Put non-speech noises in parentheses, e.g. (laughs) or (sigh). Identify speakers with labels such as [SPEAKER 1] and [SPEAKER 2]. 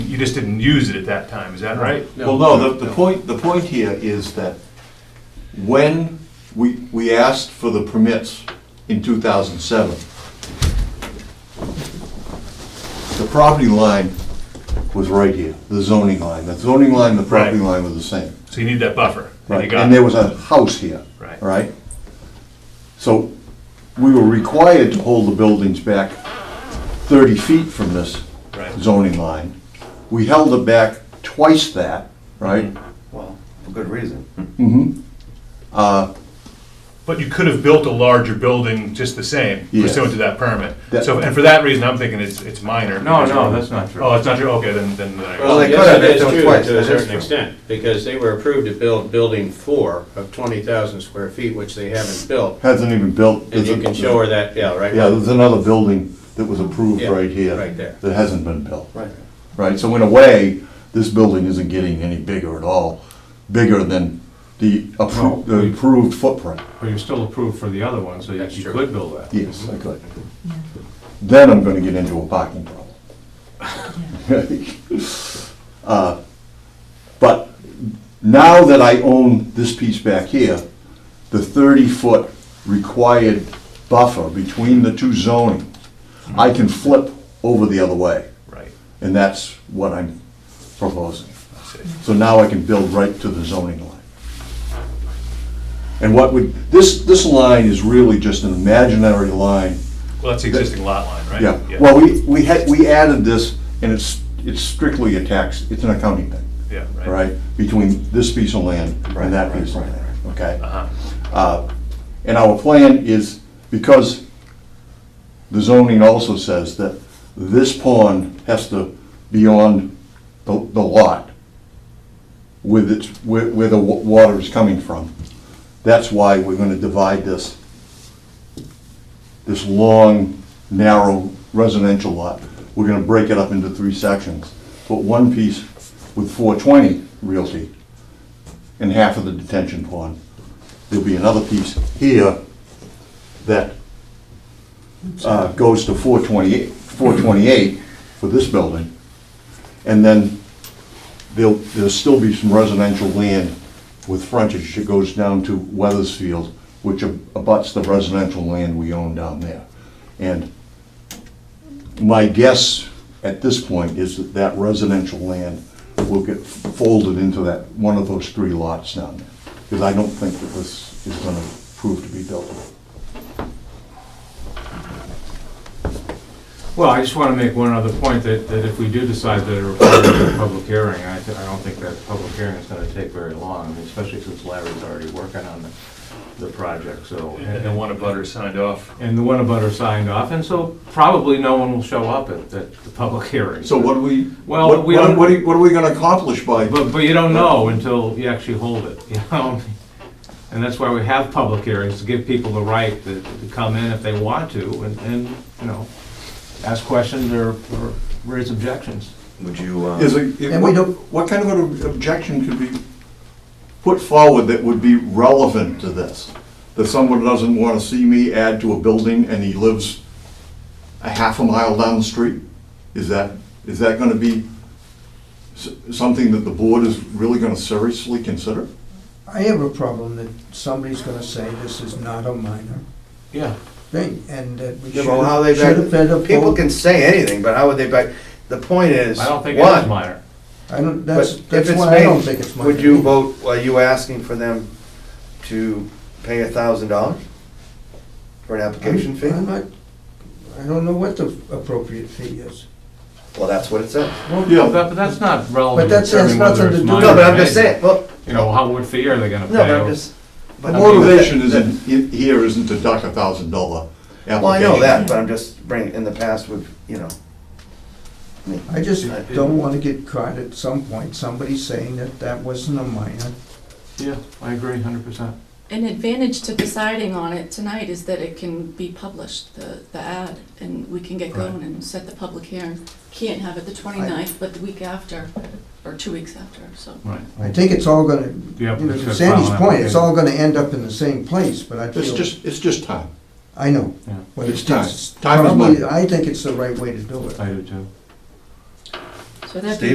[SPEAKER 1] just didn't use it at that time, is that right?
[SPEAKER 2] Well, no, the, the point, the point here is that when we, we asked for the permits in two thousand seven, the property line was right here, the zoning line. The zoning line, the property
[SPEAKER 1] Right.
[SPEAKER 2] line were the same.
[SPEAKER 1] So you need that buffer, and you
[SPEAKER 2] Right,
[SPEAKER 1] got
[SPEAKER 2] and there
[SPEAKER 1] it.
[SPEAKER 2] was a house here.
[SPEAKER 1] Right.
[SPEAKER 2] Right? So we were required to hold the buildings back thirty feet from this
[SPEAKER 1] Right.
[SPEAKER 2] zoning line. We held it back twice that,
[SPEAKER 1] Mm-hmm.
[SPEAKER 2] right?
[SPEAKER 3] Well, for good reason.
[SPEAKER 1] But you could have built a larger building just the same,
[SPEAKER 2] Yes.
[SPEAKER 1] pursuant to that permit.
[SPEAKER 2] That-
[SPEAKER 1] So, and for that reason, I'm thinking it's, it's minor.
[SPEAKER 4] No, no, that's not true.
[SPEAKER 1] Oh, it's not true, okay, then, then. I-
[SPEAKER 3] Well, they
[SPEAKER 5] yes,
[SPEAKER 3] could have
[SPEAKER 5] it
[SPEAKER 3] if
[SPEAKER 5] is
[SPEAKER 3] they were
[SPEAKER 5] true
[SPEAKER 3] twice,
[SPEAKER 5] To a
[SPEAKER 3] but that's
[SPEAKER 5] certain
[SPEAKER 3] true.
[SPEAKER 5] extent, because they were approved to build building four of twenty thousand square feet, which they haven't built.
[SPEAKER 2] Hasn't even built.
[SPEAKER 5] And you can show her that, yeah, right?
[SPEAKER 2] Yeah, there's another building that was approved
[SPEAKER 5] Yeah,
[SPEAKER 2] right here.
[SPEAKER 5] right there.
[SPEAKER 2] That hasn't been built.
[SPEAKER 3] Right.
[SPEAKER 2] Right, so in a way, this building isn't getting any bigger at all, bigger than the appro-
[SPEAKER 4] No.
[SPEAKER 2] the approved footprint.
[SPEAKER 4] But you're still approved for the other one, so you
[SPEAKER 5] That's
[SPEAKER 4] you
[SPEAKER 5] true.
[SPEAKER 4] could build that.
[SPEAKER 2] Yes, I could. Then I'm gonna get into a parking problem. (laughs) Uh, But now that I own this piece back here, the thirty-foot required buffer between the two zonings, I can flip over the other way,
[SPEAKER 1] Right,
[SPEAKER 2] and that's what I'm proposing.
[SPEAKER 1] I see.
[SPEAKER 2] So now I can build right to the zoning line. And what would, this, this line is really just an imaginary line
[SPEAKER 1] Well, that's the existing lot line, right?
[SPEAKER 2] yeah, well, we, we had, we added this, and it's, it's strictly a tax, it's an accounting thing,
[SPEAKER 1] Yeah,
[SPEAKER 2] all
[SPEAKER 1] right.
[SPEAKER 2] right? Between this piece of land
[SPEAKER 3] Right,
[SPEAKER 2] and that
[SPEAKER 3] right,
[SPEAKER 2] piece of
[SPEAKER 3] right,
[SPEAKER 2] land, okay?
[SPEAKER 1] Uh-huh.
[SPEAKER 2] Uh, And our plan is, because the zoning also says that this pond has to be on the, the lot with its, where, where the wa- water is coming from. That's why we're gonna divide this, this long, narrow residential lot. We're gonna break it up into three sections, put one piece with four twenty Realty and half of the detention pond. There'll be another piece here that uh, goes to 428, 428 for this building. And then there'll, there'll still be some residential land with frontage that goes down to Weathersfield, which abuts the residential land we own down there. And my guess at this point is that that residential land will get folded into that, one of those three lots down there. Because I don't think that this is gonna prove to be built.
[SPEAKER 4] Well, I just want to make one other point, that, that if we do decide that it requires a public hearing, I, th- I don't think that public hearing is going to take very long, I mean, especially since Larry's already working on the, the project, so.
[SPEAKER 1] And then one of butter signed off.
[SPEAKER 4] And the one about her signed off, and so probably no one will show up at, at the public hearing.
[SPEAKER 2] So what do we,
[SPEAKER 4] Well,
[SPEAKER 2] what,
[SPEAKER 4] we
[SPEAKER 2] what
[SPEAKER 4] don't-
[SPEAKER 2] what are, what are we gonna accomplish by?
[SPEAKER 4] But, but you don't know until you actually hold it, you know? And that's why we have public hearings, to give people the right to to come in if they want to and, and, you know, ask questions or, or raise objections.
[SPEAKER 3] Would you,
[SPEAKER 2] Is
[SPEAKER 3] uh,
[SPEAKER 2] it,
[SPEAKER 3] And we
[SPEAKER 2] what,
[SPEAKER 3] don't-
[SPEAKER 2] what kind of an objection could be put forward that would be relevant to this? That someone doesn't wanna see me add to a building and he lives a half a mile down the street? Is that, is that gonna be s- something that the board is really gonna seriously consider?
[SPEAKER 6] I have a problem that somebody's gonna say this is not a minor
[SPEAKER 4] Yeah.
[SPEAKER 6] thing, and that we
[SPEAKER 3] Yeah,
[SPEAKER 6] should
[SPEAKER 3] but how they
[SPEAKER 6] have
[SPEAKER 3] back-
[SPEAKER 6] should have been a
[SPEAKER 3] people
[SPEAKER 6] poll.
[SPEAKER 3] can say anything, but how would they back, the point is,
[SPEAKER 4] I don't think it is
[SPEAKER 3] one,
[SPEAKER 4] minor.
[SPEAKER 6] I don't,
[SPEAKER 3] but
[SPEAKER 6] that's,
[SPEAKER 3] if
[SPEAKER 6] that's
[SPEAKER 3] it's
[SPEAKER 6] why I don't think
[SPEAKER 3] made,
[SPEAKER 6] it's minor.
[SPEAKER 3] would you vote, are you asking for them to pay a thousand dollars? For an application fee?
[SPEAKER 6] I'm not, I don't know what the appropriate fee is.
[SPEAKER 3] Well, that's what it says.
[SPEAKER 4] Well,
[SPEAKER 2] Yeah.
[SPEAKER 4] that- But that's not relevant
[SPEAKER 6] But
[SPEAKER 4] to
[SPEAKER 6] that's- that's
[SPEAKER 4] determining whether
[SPEAKER 6] nothing
[SPEAKER 4] it's
[SPEAKER 6] to do-
[SPEAKER 4] minor.
[SPEAKER 3] No, but I'm
[SPEAKER 4] or
[SPEAKER 3] just
[SPEAKER 4] major.
[SPEAKER 3] saying, well,
[SPEAKER 4] You know, how, what fee are they gonna pay?
[SPEAKER 3] no, but I'm just.
[SPEAKER 2] The
[SPEAKER 3] but-
[SPEAKER 2] motivation isn't, i- here isn't to duck a thousand dollar application.
[SPEAKER 3] Well, I know that, but I'm just bringing, in the past, we've, you know. I mean,
[SPEAKER 6] I just
[SPEAKER 3] I-
[SPEAKER 6] don't wanna get caught at some point, somebody saying that that wasn't a minor.
[SPEAKER 4] Yeah, I agree hundred percent.
[SPEAKER 7] An advantage to deciding on it tonight is that it can be published, the, the ad, and we can get going and set the public hearing. Can't have it the 29th, but the week after, or two weeks after, so.
[SPEAKER 4] Right.
[SPEAKER 6] I think it's all gonna,
[SPEAKER 4] Yeah,
[SPEAKER 6] you know,
[SPEAKER 4] it's
[SPEAKER 6] to
[SPEAKER 4] gonna
[SPEAKER 6] Sandy's
[SPEAKER 4] file an
[SPEAKER 6] point,
[SPEAKER 4] application.
[SPEAKER 6] it's all gonna end up in the same place, but I
[SPEAKER 2] It's
[SPEAKER 6] feel,
[SPEAKER 2] just, it's just time.
[SPEAKER 6] I know.
[SPEAKER 4] Yeah.
[SPEAKER 6] but
[SPEAKER 2] It's time. Time is
[SPEAKER 6] probably-
[SPEAKER 2] money.
[SPEAKER 6] I think it's the right way to do it.
[SPEAKER 4] I do too.
[SPEAKER 7] So that'd
[SPEAKER 3] Steve?
[SPEAKER 7] be